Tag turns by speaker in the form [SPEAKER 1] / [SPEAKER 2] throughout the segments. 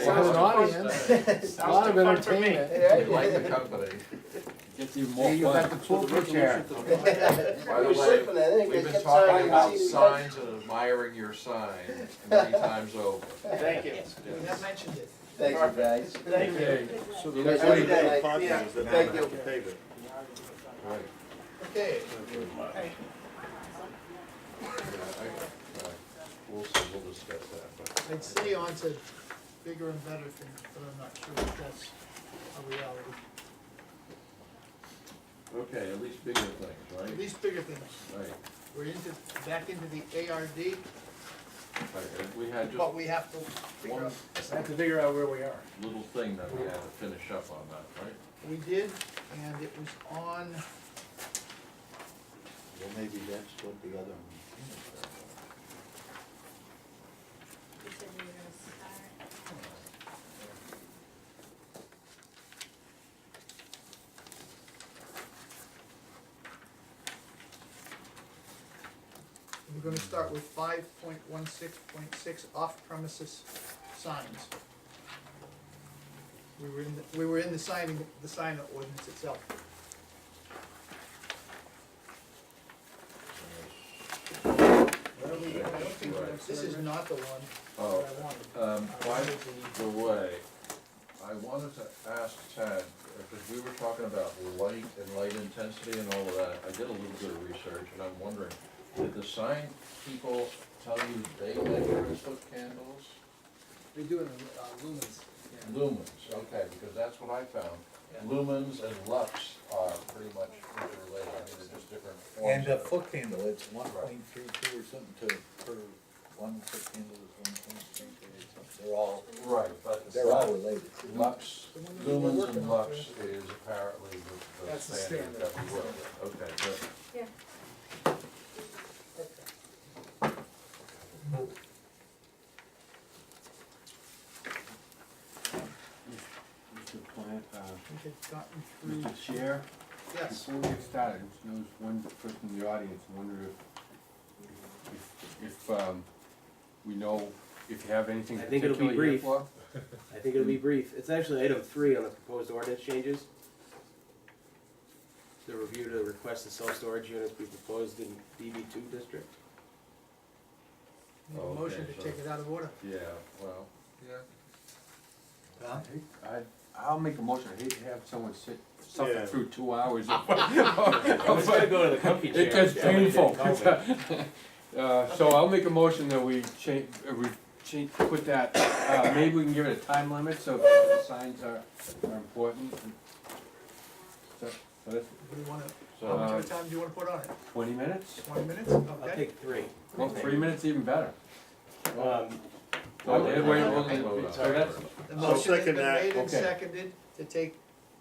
[SPEAKER 1] for an audience, a lot of entertainment.
[SPEAKER 2] Yeah.
[SPEAKER 3] We like the company.
[SPEAKER 4] Gets even
[SPEAKER 1] Hey,
[SPEAKER 4] more
[SPEAKER 1] you
[SPEAKER 4] fun.
[SPEAKER 1] got the pool chair.
[SPEAKER 3] By the
[SPEAKER 2] We're
[SPEAKER 3] way,
[SPEAKER 2] sleeping in it, it
[SPEAKER 3] we've been
[SPEAKER 2] gets
[SPEAKER 3] talking
[SPEAKER 2] tired,
[SPEAKER 3] about
[SPEAKER 2] it's-
[SPEAKER 3] signs and admiring your sign many times over.
[SPEAKER 5] Thank you.
[SPEAKER 3] Yes.
[SPEAKER 5] mentioned it.
[SPEAKER 2] Thanks, you guys.
[SPEAKER 5] Thank you.
[SPEAKER 6] So the
[SPEAKER 2] You
[SPEAKER 6] next
[SPEAKER 2] guys have a
[SPEAKER 6] item
[SPEAKER 2] good
[SPEAKER 6] on
[SPEAKER 2] night.
[SPEAKER 6] five
[SPEAKER 5] Yeah.
[SPEAKER 6] is that
[SPEAKER 2] Thank
[SPEAKER 6] I'm
[SPEAKER 2] you.
[SPEAKER 6] gonna pave it.
[SPEAKER 3] Right.
[SPEAKER 5] Okay.
[SPEAKER 3] Yeah, I- right. We'll see, we'll discuss that, but.
[SPEAKER 5] I'd say on to bigger and better things, but I'm not sure if that's a reality.
[SPEAKER 3] Okay, at least bigger things,
[SPEAKER 5] At
[SPEAKER 3] right?
[SPEAKER 5] least bigger things.
[SPEAKER 3] Right,
[SPEAKER 5] We're into, back into the ARD,
[SPEAKER 3] right, and we had just
[SPEAKER 5] but we have to figure
[SPEAKER 3] one
[SPEAKER 5] out,
[SPEAKER 1] I have to figure out where we are.
[SPEAKER 3] little thing that we had to finish up on that, right?
[SPEAKER 5] we did, and it was on,
[SPEAKER 2] Well, maybe that's what the other one.
[SPEAKER 6] You said you were gonna start.
[SPEAKER 5] we're gonna start with five point one six point six off-premises signs. We were in, the- we were in the signing, the sign ordinance itself. This is not the one
[SPEAKER 3] Oh,
[SPEAKER 5] that I wanted.
[SPEAKER 3] um, by the way, I wanted to ask Tad, because we were talking about light and light intensity and all of that. I did a little bit of research and I'm wondering, did the sign people tell you they measure as foot candles?
[SPEAKER 7] They do it in uh, lumens, yeah.
[SPEAKER 3] Lumens, okay, because that's what I found. Lumens and lux are pretty much interrelated, I mean, they're just different forms.
[SPEAKER 8] And a
[SPEAKER 3] of it.
[SPEAKER 8] foot candle, it's one point three two or something to, per, one foot candle is one point three two or something, they're all,
[SPEAKER 3] Right, but.
[SPEAKER 8] they're all related.
[SPEAKER 3] Lux,
[SPEAKER 5] The one that we're
[SPEAKER 3] lumens
[SPEAKER 5] working
[SPEAKER 3] and
[SPEAKER 5] on,
[SPEAKER 3] lux
[SPEAKER 5] right?
[SPEAKER 3] is apparently the- the
[SPEAKER 7] That's the
[SPEAKER 3] standard that we
[SPEAKER 7] standard.
[SPEAKER 3] work with, okay, good.
[SPEAKER 6] Yeah.
[SPEAKER 9] Mr. Plant, uh,
[SPEAKER 5] We had gotten through,
[SPEAKER 9] Mr. Chair,
[SPEAKER 5] yes,
[SPEAKER 9] before we get started, there was one person in the audience wondered if, if, um, we know, if you have anything
[SPEAKER 10] I think it'll be
[SPEAKER 9] particular you're
[SPEAKER 10] brief.
[SPEAKER 9] for?
[SPEAKER 10] I think it'll be brief. It's actually item three on the proposed ordinance changes. The review to request the self-storage units be proposed in DB two district.
[SPEAKER 5] Need a motion to
[SPEAKER 3] Okay, so-
[SPEAKER 5] take it out of order.
[SPEAKER 3] Yeah, well, yeah.
[SPEAKER 9] I hate- I, I'll make a motion, I hate to have someone sit, suffer
[SPEAKER 6] Yeah.
[SPEAKER 9] through two hours of.
[SPEAKER 10] I was gonna go to the comfy chair.
[SPEAKER 9] Oh, It gets
[SPEAKER 10] but somebody didn't
[SPEAKER 9] painful.
[SPEAKER 10] call me.
[SPEAKER 9] Uh, so I'll make a motion that we change, uh, we change, put that, uh, maybe we can give it a time limit, so the signs are, are important. So, so that's
[SPEAKER 5] Do you wanna, how
[SPEAKER 3] So,
[SPEAKER 5] much
[SPEAKER 9] Uh,
[SPEAKER 5] of a time do you wanna put on it?
[SPEAKER 9] twenty minutes?
[SPEAKER 5] Twenty minutes,
[SPEAKER 10] I'll
[SPEAKER 5] okay?
[SPEAKER 10] take three.
[SPEAKER 9] Well, three minutes even better.
[SPEAKER 3] uh,
[SPEAKER 10] Um,
[SPEAKER 3] well, they-
[SPEAKER 9] Wait, wait, wait,
[SPEAKER 3] well,
[SPEAKER 9] so that's-
[SPEAKER 5] The motion
[SPEAKER 6] I'll
[SPEAKER 5] has been
[SPEAKER 6] second that.
[SPEAKER 5] made and
[SPEAKER 9] Okay.
[SPEAKER 5] seconded to take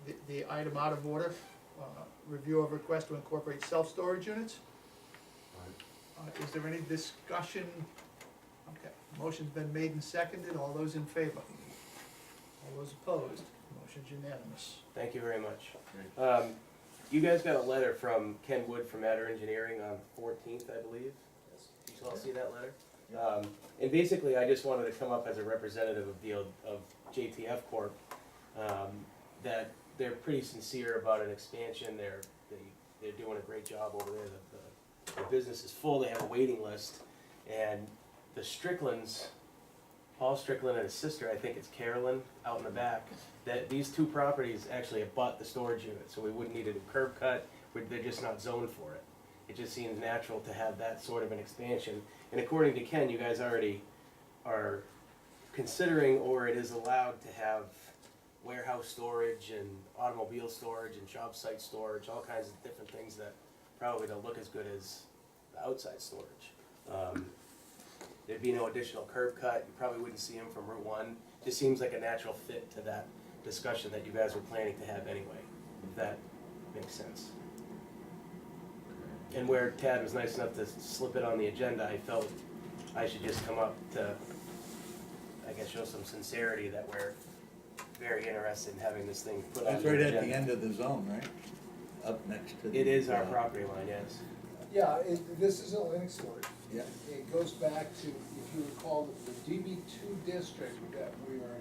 [SPEAKER 5] the, the item out of order, uh, review of request to incorporate self-storage units. Uh, is there any discussion? Okay, motion's been made and seconded, all those in favor? All those opposed, motion's unanimous.
[SPEAKER 10] Thank you very much. Um, you guys got a letter from Ken Wood from Adder Engineering on fourteenth, I believe. Did you all see that letter? Um, and basically, I just wanted to come up as a representative of the, of JTF Corp. Um, that they're pretty sincere about an expansion, they're, they, they're doing a great job over there, the, the, the business is full, they have a waiting list. And the Stricklands, Paul Strickland and his sister, I think it's Carolyn, out in the back, that these two properties actually abut the storage unit, so we wouldn't need a new curb cut, we- they're just not zoned for it. It just seems natural to have that sort of an expansion, and according to Ken, you guys already are considering, or it is allowed to have warehouse storage and automobile storage and job site storage, all kinds of different things that probably don't look as good as the outside storage. Um, There'd be no additional curb cut, you probably wouldn't see him from Route One, just seems like a natural fit to that discussion that you guys were planning to have anyway, if that makes sense. And where Tad was nice enough to slip it on the agenda, I felt I should just come up to, I guess, show some sincerity that we're very interested in having this thing put on
[SPEAKER 8] That's
[SPEAKER 10] the
[SPEAKER 8] right
[SPEAKER 10] agenda.
[SPEAKER 8] at the end of the zone, right? Up next to the.
[SPEAKER 10] It is our
[SPEAKER 8] uh,
[SPEAKER 10] property line, yes.
[SPEAKER 7] Yeah, it, this is a Linux story.
[SPEAKER 8] Yeah.
[SPEAKER 7] It goes back to, if you recall, the DB two district that we are